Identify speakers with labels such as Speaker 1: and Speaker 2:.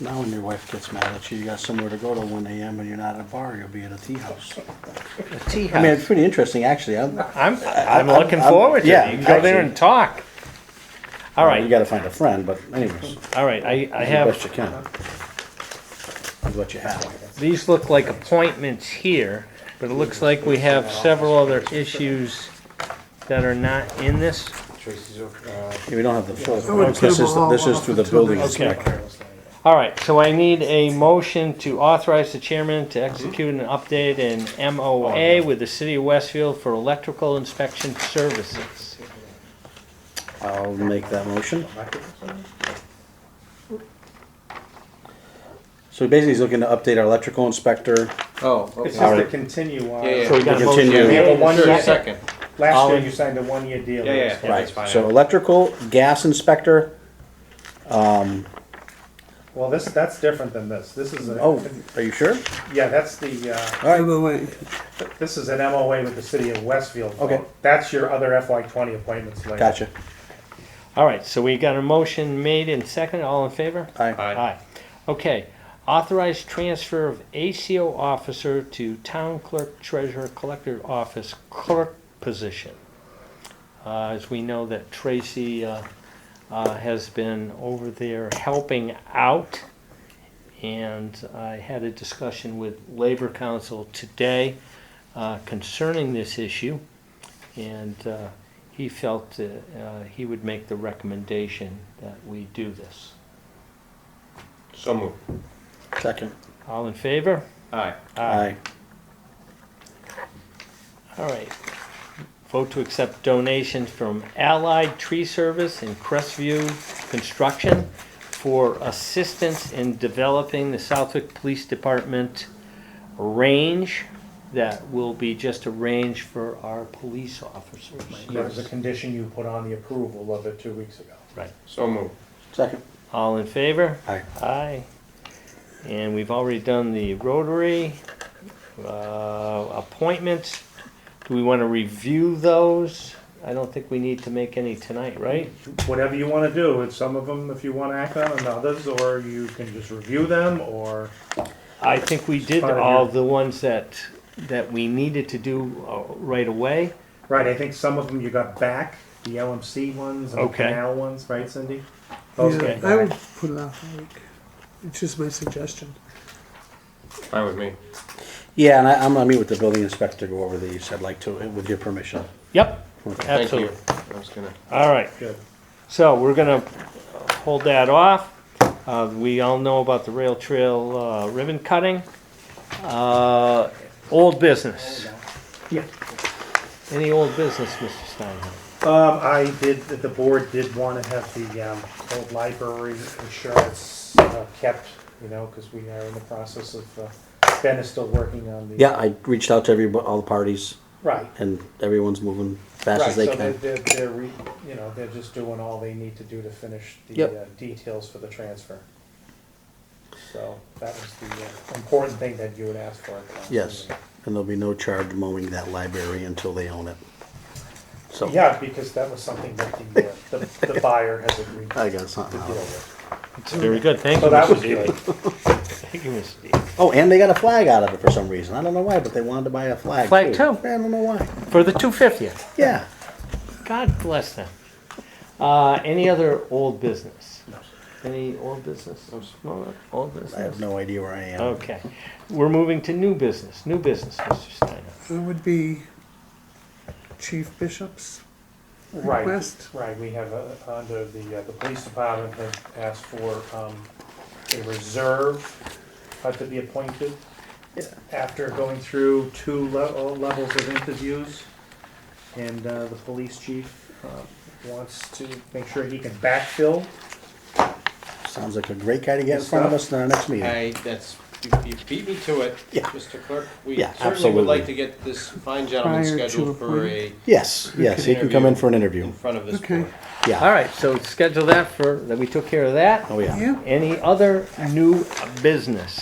Speaker 1: Now when your wife gets mad at you, you got somewhere to go to one AM and you're not at a bar, you'll be at a tea house.
Speaker 2: Tea
Speaker 1: I mean, it's
Speaker 2: house.
Speaker 1: pretty interesting, actually. I'm,
Speaker 2: I'm, I'm
Speaker 1: I'm-
Speaker 2: looking
Speaker 1: I'm-
Speaker 2: forward to
Speaker 1: yeah,
Speaker 2: it. You can go there
Speaker 1: actually.
Speaker 2: and talk. All
Speaker 1: You
Speaker 2: right,
Speaker 1: gotta find a friend, but anyways,
Speaker 2: all right, I, I
Speaker 1: do the best you
Speaker 2: have,
Speaker 1: can. With what you have.
Speaker 2: these look like appointments here, but it looks like we have several other issues that are not in this.
Speaker 3: Tracy's over, uh,
Speaker 1: Yeah, We don't have the full,
Speaker 4: would
Speaker 1: this is,
Speaker 4: table
Speaker 1: this
Speaker 4: all
Speaker 1: is through the building inspector.
Speaker 2: All right, so I need a motion to authorize the chairman to execute an update in
Speaker 1: Oh,
Speaker 2: MOA with the city of Westfield for electrical inspection services.
Speaker 1: I'll make that motion. So basically, he's looking to update our electrical inspector.
Speaker 3: Oh, okay.
Speaker 5: It's
Speaker 1: All
Speaker 5: just to
Speaker 1: right.
Speaker 5: continue on.
Speaker 3: Yeah, yeah.
Speaker 1: So we can
Speaker 2: Got a motion.
Speaker 1: continue.
Speaker 5: We have a one-year
Speaker 3: Second.
Speaker 5: Last
Speaker 2: All
Speaker 5: year
Speaker 2: in-
Speaker 5: you signed a one-year deal.
Speaker 3: Yeah, yeah.
Speaker 1: Right,
Speaker 3: that's fine.
Speaker 1: so electrical, gas inspector,
Speaker 5: Well, this, that's different than this. This is, a
Speaker 1: oh, are you sure?
Speaker 5: yeah, that's the, uh,
Speaker 4: Wait, wait, wait.
Speaker 5: this is an MOA with the city of Westfield.
Speaker 1: Okay.
Speaker 5: That's your other FY twenty appointments later.
Speaker 1: Gotcha.
Speaker 2: All right, so we got a motion made and second, all in favor?
Speaker 1: Aye.
Speaker 3: Aye.
Speaker 2: Aye. Okay, authorized transfer of ACO officer to town clerk treasurer collector office clerk position. Uh, as we know that Tracy, uh, uh, has been over there helping out. And I had a discussion with Labor Council today, uh, concerning this issue. And, uh, he felt, uh, uh, he would make the recommendation that we do this.
Speaker 3: So moved.
Speaker 1: Second.
Speaker 2: All in favor?
Speaker 3: Aye.
Speaker 1: Aye.
Speaker 2: All right. Vote to accept donations from Allied Tree Service and Crestview Construction for assistance in developing the Southwick Police Department range that will be just a range for our police officers.
Speaker 5: That was a condition you put on the approval of it two weeks ago.
Speaker 3: So moved.
Speaker 1: Second.
Speaker 2: All in favor?
Speaker 1: Aye.
Speaker 2: Aye. And we've already done the Rotary uh, appointments. Do we want to review those? I don't think we need to make any tonight, right?
Speaker 5: Whatever you wanna do, it's some of them, if you wanna act on and others, or you can just review them, or
Speaker 2: I think we did
Speaker 5: Part of
Speaker 2: all
Speaker 5: your-
Speaker 2: the ones that, that we needed to do uh, right away.
Speaker 5: Right, I think some of them you got back, the LMC ones and the
Speaker 2: Okay.
Speaker 5: canal ones, right, Cindy? Those
Speaker 4: Yeah,
Speaker 5: came
Speaker 4: I
Speaker 5: back.
Speaker 4: would put it off a week. It's just my suggestion.
Speaker 3: Fine with me.
Speaker 1: Yeah, and I, I'm gonna meet with the building inspector, go over these, I'd like to, with your permission.
Speaker 2: Yep,
Speaker 3: Thank you.
Speaker 2: absolutely.
Speaker 3: I was gonna.
Speaker 2: All right.
Speaker 5: Good.
Speaker 2: So we're gonna hold that off. Uh, we all know about the rail trail, uh, ribbon cutting. Uh, old business.
Speaker 5: Yeah.
Speaker 2: Any old business, Mr. Steinhardt?
Speaker 5: Um, I did, the board did wanna have the, um, old library insurance uh, kept, you know, cause we are in the process of, uh, Ben is still working on the.
Speaker 1: Yeah, I reached out to every, all the parties,
Speaker 5: Right.
Speaker 1: and everyone's moving fast
Speaker 5: Right,
Speaker 1: as they
Speaker 5: so they're,
Speaker 1: can.
Speaker 5: they're, they're re, you know, they're just doing all they need to do to finish the
Speaker 1: Yep.
Speaker 5: uh, details for the transfer. So that was the uh, important thing that you would ask for. at the last
Speaker 1: Yes,
Speaker 5: meeting.
Speaker 1: and there'll be no charge mowing that library until they own it. So,
Speaker 5: Yeah, because that was something that the, uh, the, the buyer has agreed to
Speaker 1: I got something.
Speaker 5: deal
Speaker 1: out of it.
Speaker 5: with.
Speaker 2: Very good, thank you,
Speaker 5: So that
Speaker 2: Mr.
Speaker 5: was
Speaker 2: Dealey.
Speaker 5: good.
Speaker 2: Thank you, Mr. Dealey.
Speaker 1: Oh, and they got a flag out of it for some reason, I don't know why, but they wanted to buy a flag.
Speaker 2: Flag too.
Speaker 1: I don't know why,
Speaker 2: For the two fiftieth,
Speaker 1: yeah.
Speaker 2: God bless them. Uh, any other old business? Any old business? No, Old
Speaker 1: I have
Speaker 2: business?
Speaker 1: no idea where I am.
Speaker 2: Okay, we're moving to new business, new business, Mr. Steinhardt.
Speaker 4: It would be Chief Bishop's
Speaker 5: Right,
Speaker 4: request.
Speaker 5: right, we have, uh, under the, uh, the police department has asked for, um, a reserve uh, to be appointed after going through two level, levels of interviews. And, uh, the police chief, uh, wants to make sure he can backfill.
Speaker 1: Sounds like a great guy to get in front of us in our next meeting.
Speaker 3: I, that's, you, you beat me to it.
Speaker 1: Yeah.
Speaker 3: Mr. Clerk, we
Speaker 1: Yeah,
Speaker 3: certainly would
Speaker 1: absolutely.
Speaker 3: like to get this fine gentleman
Speaker 4: Prior to
Speaker 3: scheduled for a,
Speaker 4: appointment.
Speaker 1: Yes, yes, he can come in for an interview,
Speaker 3: in front of this
Speaker 4: Okay.
Speaker 3: board.
Speaker 1: yeah,
Speaker 2: All right, so schedule that for, that we took care of that.
Speaker 1: oh yeah.
Speaker 4: Yeah.
Speaker 2: Any other new business?